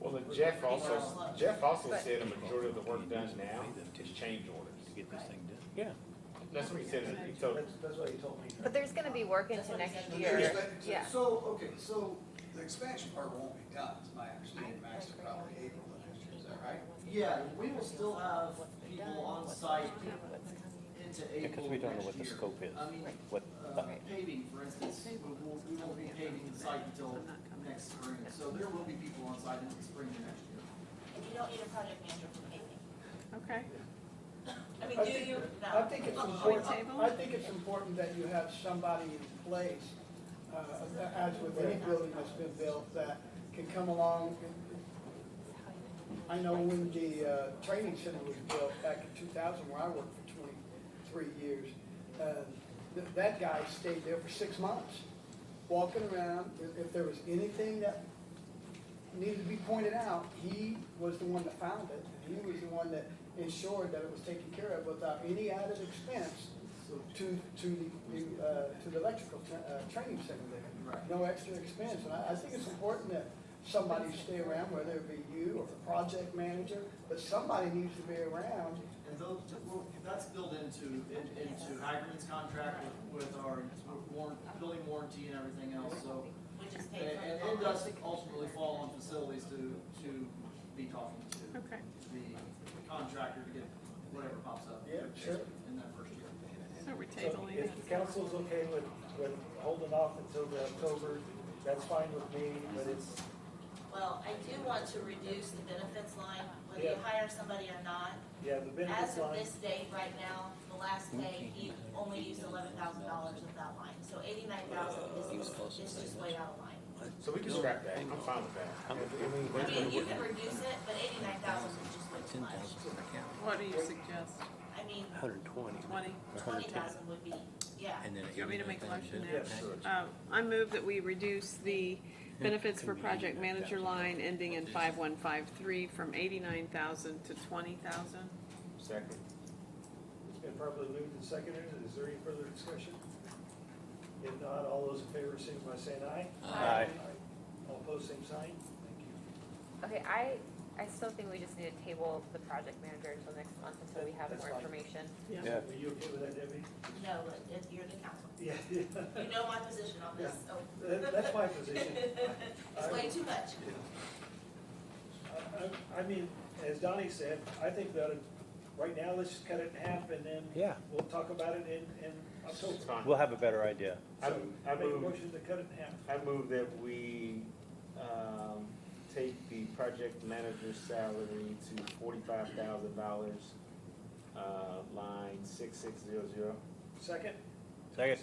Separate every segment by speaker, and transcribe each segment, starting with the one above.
Speaker 1: Well, but Jeff also, Jeff also said a majority of the work done now is change orders.
Speaker 2: Get this thing done.
Speaker 1: That's what he said, he told,
Speaker 3: That's, that's what he told me.
Speaker 4: But there's gonna be work into next
Speaker 5: And
Speaker 4: year.
Speaker 5: there's that-
Speaker 4: Yeah.
Speaker 5: So, okay, so the expansion part won't be done, is my understanding, max is probably April of next year, is that right?
Speaker 6: Yeah, we will still have people on site into April
Speaker 2: Because we don't know what the
Speaker 6: next year.
Speaker 2: scope is,
Speaker 6: I mean,
Speaker 2: what,
Speaker 6: uh, paving, for instance, we will, we won't be paving the site until next spring, so there will be people on site in the spring of next year.
Speaker 7: And you don't need a project manager for anything.
Speaker 8: Okay.
Speaker 7: I mean,
Speaker 3: I
Speaker 7: do
Speaker 3: think-
Speaker 7: you?
Speaker 3: I
Speaker 7: No.
Speaker 3: think it's
Speaker 7: Uh-uh.
Speaker 3: important,
Speaker 8: Table?
Speaker 3: I think it's important that you have somebody in place, uh, as with any building that's been built, that can come along. I know when the, uh, training center was built back in two thousand, where I worked for twenty-three years, uh, th- that guy stayed there for six months, walking around, if, if there was anything that needed to be pointed out, he was the one that found it, and he was the one that ensured that it was taken care of without any added expense to, to the, uh, to the electrical, tra- uh, training center there.
Speaker 6: Right.
Speaker 3: No extra expense, and I, I think it's important that somebody stay around, whether it be you or the project manager, but somebody needs to be around.
Speaker 6: And those, well, that's built into, in- into Hagerman's contract with, with our warrant, building warranty and everything else, so.
Speaker 7: We just
Speaker 6: And,
Speaker 7: paid for
Speaker 6: and
Speaker 7: it.
Speaker 6: it does ultimately fall on facilities to, to be talking to.
Speaker 8: Okay.
Speaker 6: The contractor to get whatever pops up.
Speaker 3: Yeah, sure.
Speaker 6: In that first year.
Speaker 8: So we're
Speaker 9: So
Speaker 8: tabling
Speaker 9: if
Speaker 8: it.
Speaker 9: the council's okay with, with holding off until the October, that's fine with me, but it's,
Speaker 7: Well, I do want to reduce the benefits line, whether you
Speaker 9: Yeah.
Speaker 7: hire somebody or not.
Speaker 9: yeah, the benefits
Speaker 7: As of
Speaker 9: line.
Speaker 7: this date, right now, the last day, you only used eleven thousand dollars of that line. So eighty-nine thousand is, is just way out of line.
Speaker 1: so we can scrap that, I'm fine with that.
Speaker 7: I mean, you can reduce it, but eighty-nine thousand is just way too much.
Speaker 8: What do you suggest?
Speaker 7: I mean,
Speaker 2: Hundred twenty.
Speaker 8: Twenty?
Speaker 7: twenty thousand would be, yeah.
Speaker 2: then.
Speaker 8: Do you want me to make a motion
Speaker 2: Yeah,
Speaker 8: now?
Speaker 2: sure.
Speaker 8: Uh, I move that we reduce the benefits for project manager line ending in five one five three from eighty-nine thousand to twenty thousand.
Speaker 1: Second,
Speaker 9: It's been properly moved and seconded, is there any further discussion? If not, all those in favor, signify by saying aye.
Speaker 8: Uh,
Speaker 1: Aye.
Speaker 9: All opposed, same sign, thank you.
Speaker 4: Okay, I, I still think we just need to table the project manager until next month until we have
Speaker 9: That's
Speaker 4: more
Speaker 9: fine.
Speaker 4: information.
Speaker 8: Yeah.
Speaker 9: Were you okay with that, Debbie?
Speaker 7: No, but it- you're the council.
Speaker 9: Yeah,
Speaker 7: You know my position on this, so.
Speaker 9: That- that's my position.
Speaker 7: It's way too much.
Speaker 9: I, I, I mean, as Donnie said, I think that, right now, let's just cut it in half and then.
Speaker 2: Yeah.
Speaker 9: We'll talk about it in, in October.
Speaker 1: it's fine.
Speaker 2: We'll have a better idea.
Speaker 1: I,
Speaker 9: So,
Speaker 1: I
Speaker 9: I make a
Speaker 1: move,
Speaker 9: motion to cut it in half.
Speaker 1: I move that we, um, take the project manager's salary to forty-five thousand dollars, uh, line six six zero zero.
Speaker 9: Second?
Speaker 2: Second.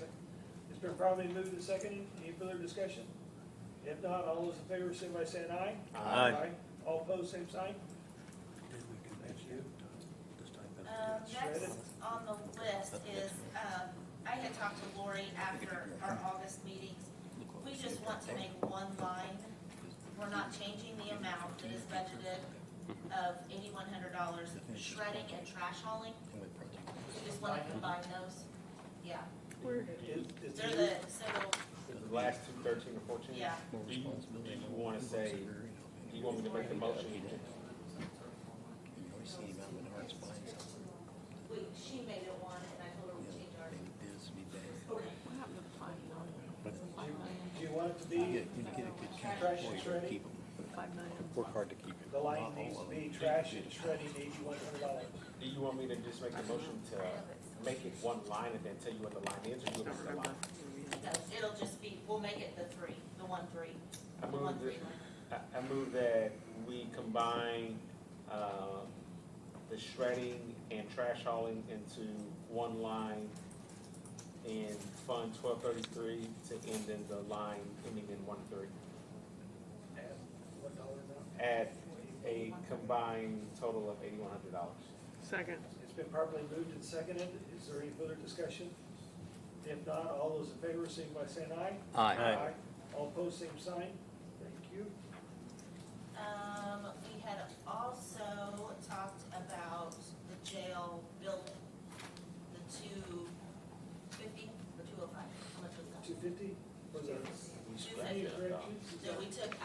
Speaker 9: It's been probably moved and seconded. Any further discussion? If not, all those in favor, signify by saying aye.
Speaker 2: Aye.
Speaker 9: All opposed, same sign?
Speaker 8: Uh,
Speaker 7: Um, next on the list is, um, I had talked to Lori after our August meetings. We just want to make one line. We're not changing the amount that is budgeted of eighty-one hundred dollars shredding and trash hauling. We just want to combine those. Yeah,
Speaker 8: We're,
Speaker 9: Is, is
Speaker 7: they're
Speaker 9: there,
Speaker 7: the, so
Speaker 1: The last two thirteen or fourteen?
Speaker 7: Yeah.
Speaker 1: Do you, do you wanna say, do you want me to make the motion?
Speaker 7: we, she made it one and I told her we change ours.
Speaker 8: what happened to the five million? Five million,
Speaker 9: do you want it to be trash and shredding?
Speaker 8: five million.
Speaker 2: Work hard to keep it.
Speaker 9: The line needs to be trash and shredding eighty-one hundred dollars.
Speaker 1: Do you want me to just make the motion to make it one line and then tell you what the line is, or you want
Speaker 8: I don't
Speaker 1: me to
Speaker 8: remember.
Speaker 1: line?
Speaker 7: No, it'll just be, we'll make it the three, the one three.
Speaker 1: I
Speaker 7: the one
Speaker 1: move
Speaker 7: three
Speaker 1: that,
Speaker 7: line.
Speaker 1: I, I move that we combine, uh, the shredding and trash hauling into one line in Fund twelve thirty-three to end in the line ending in one thirty.
Speaker 9: One dollar now.
Speaker 1: At a combined total of eighty-one hundred dollars.
Speaker 8: Second.
Speaker 9: It's been properly moved and seconded. Is there any further discussion? If not, all those in favor, signify by saying aye. Aye. All opposed, same sign? Thank you.
Speaker 7: Um, we had also talked about the jail building, the two fifty, the two oh five, how much was that?
Speaker 9: Two fifty? Was that?
Speaker 7: Two fifty.
Speaker 9: Any corrections?
Speaker 7: So we took